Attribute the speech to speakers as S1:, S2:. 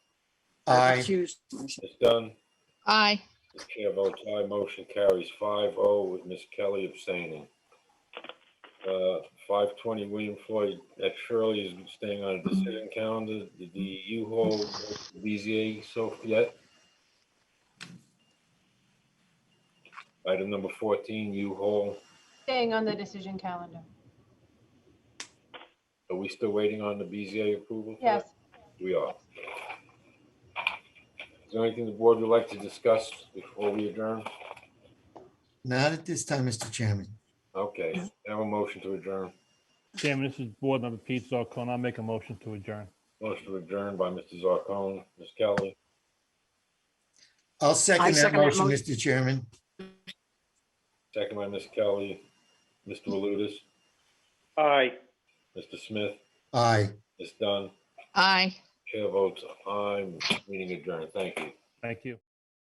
S1: I
S2: Aye.
S1: recuse myself.
S3: Ms. Dunn,
S4: Aye.
S3: the chair votes aye, motion carries 5-0 with Ms. Kelly abstaining. Uh, five twenty William Floyd at Shirley is staying on a decision calendar. Did the U hold BZA so yet? Item number fourteen, U haul.
S5: Staying on the decision calendar.
S3: Are we still waiting on the BZA approval? for that?
S5: Yes,
S3: We are. Is there anything the board would like to discuss before we adjourn?
S2: Not at this time, Mr. Chairman.
S3: Okay, have a motion to adjourn.
S6: Chairman, this is Board Member Pete Zarcone. I'll make a motion to adjourn.
S3: Motion to adjourn by Mr. Zarcone, Ms. Kelly,
S2: I'll second that
S1: second that
S2: motion,
S1: motion.
S2: Mr. Chairman.
S3: second by Ms. Kelly, Mr. Walutis,
S7: aye.
S3: Mr. Smith,
S2: Aye.
S3: Ms. Dunn.
S4: Aye.
S3: Chair votes aye, meeting adjourned. Thank you.
S6: Thank you.